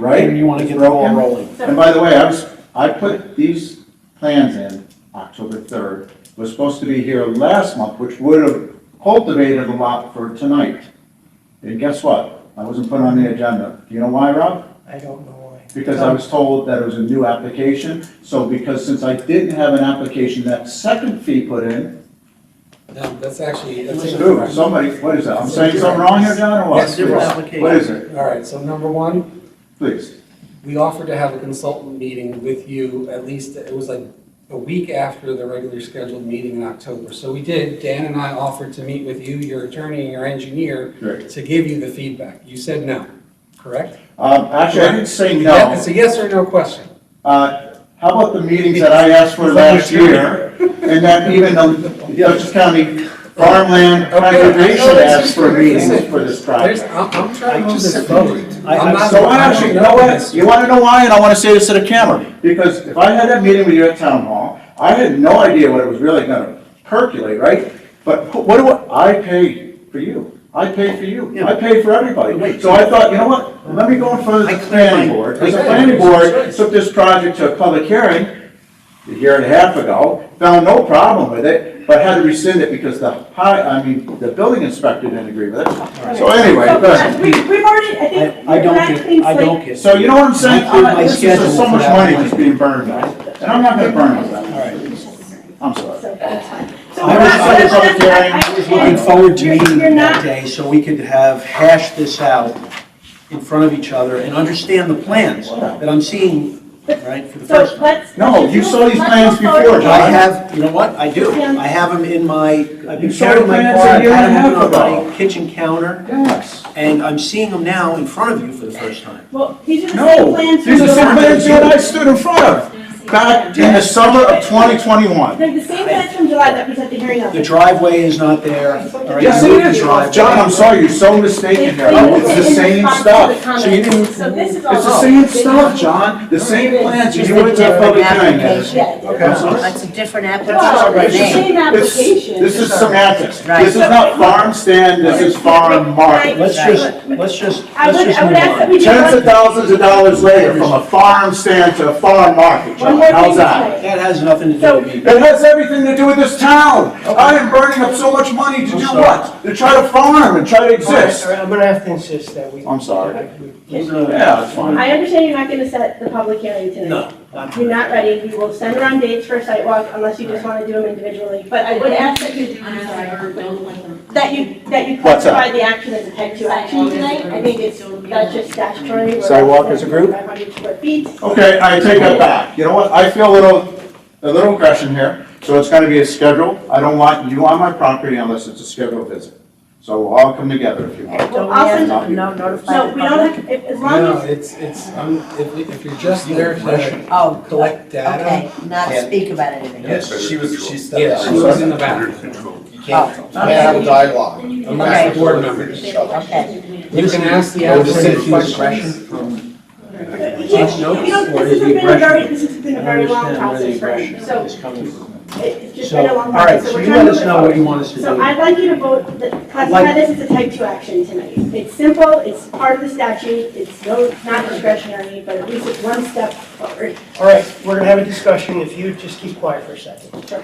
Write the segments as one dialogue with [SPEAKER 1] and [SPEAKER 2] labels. [SPEAKER 1] right?
[SPEAKER 2] You want to get the ball rolling.
[SPEAKER 1] And by the way, I was, I put these plans in October third, was supposed to be here last month, which would have cultivated a lot for tonight. And guess what? I wasn't put on the agenda. Do you know why, Rob?
[SPEAKER 3] I don't know why.
[SPEAKER 1] Because I was told that it was a new application, so because since I didn't have an application, that second fee put in,
[SPEAKER 4] No, that's actually, that's
[SPEAKER 1] who,
[SPEAKER 4] incorrect.
[SPEAKER 1] somebody, what is that, I'm saying something wrong here, John, or what?
[SPEAKER 4] Yes, you're
[SPEAKER 1] Please.
[SPEAKER 3] right.
[SPEAKER 1] What is it,
[SPEAKER 4] All right, so number one,
[SPEAKER 1] please?
[SPEAKER 4] we offered to have a consultant meeting with you at least, it was like a week after the regular scheduled meeting in October. So we did, Dan and I offered to meet with you, your attorney, and your engineer
[SPEAKER 1] Great.
[SPEAKER 4] to give you the feedback. You said no, correct?
[SPEAKER 1] Um, actually, I didn't say
[SPEAKER 4] Yeah,
[SPEAKER 1] no,
[SPEAKER 4] It's a yes or no question.
[SPEAKER 1] uh, how about the meetings that I asked for last year? And then even the Dutchess County Farmland
[SPEAKER 4] Okay, I know
[SPEAKER 1] Conservation
[SPEAKER 4] that's
[SPEAKER 1] asked for
[SPEAKER 4] just-
[SPEAKER 1] meetings for this
[SPEAKER 4] There's,
[SPEAKER 1] project.
[SPEAKER 4] I'm, I'm trying to
[SPEAKER 2] I
[SPEAKER 4] move
[SPEAKER 2] just
[SPEAKER 4] this forward.
[SPEAKER 2] I-
[SPEAKER 4] I'm
[SPEAKER 2] I'm
[SPEAKER 4] not-
[SPEAKER 1] So I
[SPEAKER 4] I don't
[SPEAKER 1] actually, you know
[SPEAKER 4] this.
[SPEAKER 1] what, you wanna know why, and I wanna say this to the camera, because if I had that meeting with you at town hall, I had no idea what it was really gonna percolate, right? But wh- what do I, I paid for you, I paid for you, I paid for everybody,
[SPEAKER 2] Wait.
[SPEAKER 1] so I thought, you know what, let me go in front of
[SPEAKER 2] I
[SPEAKER 1] the
[SPEAKER 2] cleared
[SPEAKER 1] planning
[SPEAKER 2] my-
[SPEAKER 1] board, because the
[SPEAKER 4] Okay.
[SPEAKER 1] planning board
[SPEAKER 4] Right.
[SPEAKER 1] took this project to a public hearing a year and a half ago, found no problem with it, but had to rescind it because the high, I mean, the building inspector didn't agree with it. So anyway,
[SPEAKER 5] So,
[SPEAKER 1] but.
[SPEAKER 5] uh, we- We've already, I think.
[SPEAKER 2] I I don't
[SPEAKER 5] we're at clean
[SPEAKER 2] get, I don't
[SPEAKER 5] slate.
[SPEAKER 2] get.
[SPEAKER 1] So you know what I'm saying?
[SPEAKER 2] I cleared my
[SPEAKER 1] This is just
[SPEAKER 2] schedule
[SPEAKER 1] so
[SPEAKER 2] for
[SPEAKER 1] much
[SPEAKER 2] that
[SPEAKER 1] money
[SPEAKER 2] one.
[SPEAKER 1] just being burned, guys. and I'm not gonna burn it. I'm sorry.
[SPEAKER 5] So that's fine. So
[SPEAKER 2] I
[SPEAKER 5] we're
[SPEAKER 2] was-
[SPEAKER 5] not-
[SPEAKER 2] I was
[SPEAKER 5] so that's-
[SPEAKER 1] up there and
[SPEAKER 5] I-
[SPEAKER 1] it was
[SPEAKER 5] I-
[SPEAKER 2] Looking forward to
[SPEAKER 5] you're-
[SPEAKER 2] meeting
[SPEAKER 5] You're
[SPEAKER 2] you that
[SPEAKER 5] not,
[SPEAKER 2] day so we could have hashed this out in front of each other and understand the plans that I'm seeing, right, for the
[SPEAKER 5] so
[SPEAKER 2] first time.
[SPEAKER 5] let's.
[SPEAKER 1] No,
[SPEAKER 5] let's
[SPEAKER 1] you
[SPEAKER 5] move-
[SPEAKER 1] saw these
[SPEAKER 5] let's
[SPEAKER 1] plans
[SPEAKER 5] move forward.
[SPEAKER 1] before, John.
[SPEAKER 2] I have, you know what, I do, I have them in my, I've
[SPEAKER 1] You
[SPEAKER 2] been
[SPEAKER 1] sold
[SPEAKER 2] carrying my
[SPEAKER 1] plants
[SPEAKER 2] car,
[SPEAKER 1] a
[SPEAKER 2] I've
[SPEAKER 1] year
[SPEAKER 2] had
[SPEAKER 1] and a
[SPEAKER 2] them
[SPEAKER 1] half
[SPEAKER 2] on
[SPEAKER 1] ago.
[SPEAKER 2] my kitchen counter,
[SPEAKER 1] Yes.
[SPEAKER 2] and I'm seeing them now in front of you for the first time.
[SPEAKER 5] Well, these are the same
[SPEAKER 1] No,
[SPEAKER 5] plans.
[SPEAKER 1] these are
[SPEAKER 5] from
[SPEAKER 1] some
[SPEAKER 5] July.
[SPEAKER 1] plans that I stood in front of back in the summer of 2021.
[SPEAKER 5] They're the same plans from July that was at the hearing. on
[SPEAKER 2] The
[SPEAKER 5] it.
[SPEAKER 2] driveway is not there. all right?
[SPEAKER 1] Yes, it is.
[SPEAKER 2] Driveway.
[SPEAKER 1] John, I'm sorry, you're so mistaken here. Oh, It's the same stuff.
[SPEAKER 5] So you didn't. So this is all.
[SPEAKER 1] It's the same stuff, John. The same plans. You went to a public hearing. Ed.
[SPEAKER 5] Yeah.
[SPEAKER 1] I'm sorry.
[SPEAKER 6] That's a different
[SPEAKER 5] Well,
[SPEAKER 6] application.
[SPEAKER 5] it's the
[SPEAKER 6] name.
[SPEAKER 5] same
[SPEAKER 1] This-
[SPEAKER 5] application.
[SPEAKER 1] This is semantics. This is
[SPEAKER 5] Right.
[SPEAKER 1] not farm stand, this is farm market.
[SPEAKER 2] Let's just, let's just,
[SPEAKER 5] I
[SPEAKER 2] let's
[SPEAKER 5] would,
[SPEAKER 2] just
[SPEAKER 5] I would ask that
[SPEAKER 2] move on.
[SPEAKER 5] we do.
[SPEAKER 1] Tens
[SPEAKER 5] one-
[SPEAKER 1] of thousands of dollars later, from a farm stand to a farm market,
[SPEAKER 5] One
[SPEAKER 1] John,
[SPEAKER 5] more
[SPEAKER 1] how's
[SPEAKER 5] thing
[SPEAKER 1] that?
[SPEAKER 5] tonight.
[SPEAKER 2] That has nothing to do
[SPEAKER 5] So-
[SPEAKER 2] with me.
[SPEAKER 1] It has everything to do with this town. I am burning up so much money to do what? To try to farm and try to exist.
[SPEAKER 3] All right, I'm gonna have to insist that we.
[SPEAKER 1] I'm sorry.
[SPEAKER 2] It's
[SPEAKER 1] Yeah,
[SPEAKER 2] not-
[SPEAKER 1] that's fine.
[SPEAKER 5] I understand you're not gonna set the public hearing tonight.
[SPEAKER 2] No.
[SPEAKER 5] You're not ready, we will send around dates for a site walk unless you just wanna do them individually, but I would ask that you, that you, that you
[SPEAKER 1] What's up?
[SPEAKER 5] classify the action as a type two action tonight. I think it's, that's just statutory.
[SPEAKER 2] Sidewalk as a group?
[SPEAKER 5] Five hundred square feet.
[SPEAKER 2] Oh,
[SPEAKER 1] Okay, I take that back. You know what? I feel a little, a little aggression here, so it's gonna be a schedule. I don't want you on my property unless it's a scheduled visit. So we'll all come together if you want.
[SPEAKER 6] Don't we
[SPEAKER 5] I'll
[SPEAKER 6] have
[SPEAKER 5] send-
[SPEAKER 6] to no- notify
[SPEAKER 5] No,
[SPEAKER 6] the
[SPEAKER 5] we don't
[SPEAKER 6] public?
[SPEAKER 5] have, if- as long
[SPEAKER 4] No,
[SPEAKER 5] as,
[SPEAKER 4] it's, it's, um, if, if you're just there to
[SPEAKER 6] Oh, collect
[SPEAKER 4] collect data.
[SPEAKER 6] okay, not
[SPEAKER 4] Yeah.
[SPEAKER 6] speak about anything.
[SPEAKER 7] Yes, she was, she stepped
[SPEAKER 4] Yeah,
[SPEAKER 7] out.
[SPEAKER 4] she was in the back. Oh.
[SPEAKER 7] You can't,
[SPEAKER 6] Oh,
[SPEAKER 7] you can't have a dialogue.
[SPEAKER 6] Okay.
[SPEAKER 4] Board members.
[SPEAKER 6] Okay.
[SPEAKER 4] You can ask the
[SPEAKER 7] Or just
[SPEAKER 4] applicant
[SPEAKER 7] say
[SPEAKER 4] questions.
[SPEAKER 5] you can't- you don't-
[SPEAKER 2] Or is
[SPEAKER 5] this has
[SPEAKER 2] the
[SPEAKER 5] been a very,
[SPEAKER 2] aggression?
[SPEAKER 5] this has been
[SPEAKER 2] I
[SPEAKER 5] a very long
[SPEAKER 2] understand where
[SPEAKER 5] process
[SPEAKER 2] the
[SPEAKER 5] for me,
[SPEAKER 2] aggression
[SPEAKER 5] so
[SPEAKER 2] is coming from.
[SPEAKER 5] it- it's just
[SPEAKER 2] So,
[SPEAKER 5] been a long
[SPEAKER 2] all right,
[SPEAKER 5] process, so
[SPEAKER 2] so
[SPEAKER 5] we're
[SPEAKER 2] you
[SPEAKER 5] trying
[SPEAKER 2] let
[SPEAKER 5] to move
[SPEAKER 2] us
[SPEAKER 5] it
[SPEAKER 2] know what
[SPEAKER 5] forward.
[SPEAKER 2] you want us to
[SPEAKER 5] So
[SPEAKER 2] do.
[SPEAKER 5] I'd like you to vote, that- classify
[SPEAKER 2] Like-
[SPEAKER 5] this as a type two action tonight. It's simple, it's part of the statute, it's no, not discretionary, but at least it's one step forward.
[SPEAKER 3] All right, we're gonna have a discussion, if you just keep quiet for a second.
[SPEAKER 5] Sure.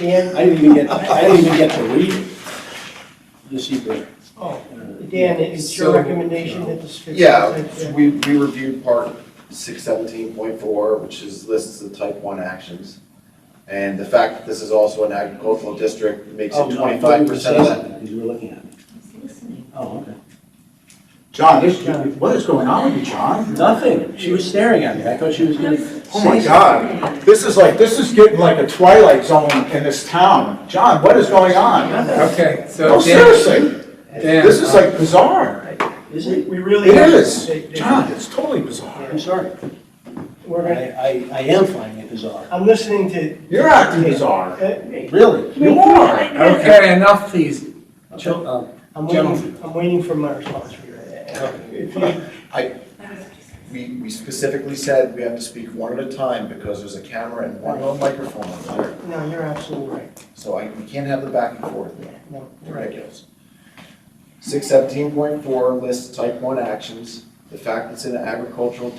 [SPEAKER 3] Dan,
[SPEAKER 2] I didn't even get, I didn't even get to read it. This evening.
[SPEAKER 3] oh, Dan, it's your
[SPEAKER 4] So-
[SPEAKER 3] recommendation that this.
[SPEAKER 7] Yeah, we, we reviewed part six seventeen point four, which is, lists the type one actions. And the fact that this is also an agricultural district makes
[SPEAKER 2] Oh,
[SPEAKER 7] it twenty-five percent of that.
[SPEAKER 2] Because you were looking at it. Oh, okay.
[SPEAKER 1] John, this- what is going on with you, John?
[SPEAKER 2] Nothing. She was staring at me. I thought she was gonna say
[SPEAKER 1] Oh my
[SPEAKER 2] something.
[SPEAKER 1] God, this is like, this is getting like a twilight zone in this town. John, what is going on?
[SPEAKER 4] Okay,
[SPEAKER 1] No,
[SPEAKER 4] so Dan,
[SPEAKER 1] seriously,
[SPEAKER 4] Dan,
[SPEAKER 1] this is like bizarre.
[SPEAKER 2] Is
[SPEAKER 3] We
[SPEAKER 2] it?
[SPEAKER 3] we really.
[SPEAKER 1] It
[SPEAKER 3] have to-
[SPEAKER 1] is.
[SPEAKER 3] they- they-
[SPEAKER 1] John, it's totally bizarre.
[SPEAKER 2] I'm sorry. I,
[SPEAKER 3] We're gonna,
[SPEAKER 2] I, I am finding it bizarre.
[SPEAKER 3] I'm listening to.
[SPEAKER 1] You're acting bizarre.
[SPEAKER 3] uh,
[SPEAKER 2] Really?
[SPEAKER 1] You are.
[SPEAKER 4] okay, enough please.
[SPEAKER 1] uh,
[SPEAKER 4] Chil- um,
[SPEAKER 3] I'm
[SPEAKER 4] Gentlemen.
[SPEAKER 3] waiting, I'm waiting for my response for you. If you-
[SPEAKER 7] We, we specifically said we have to speak one at a time because there's a camera and one little microphone on there.
[SPEAKER 3] No, you're absolutely right.
[SPEAKER 7] So I, we can't have the back and forth.
[SPEAKER 3] No, you're right.
[SPEAKER 7] Ridiculous. Six seventeen point four lists type one actions. It The fact it's in an agricultural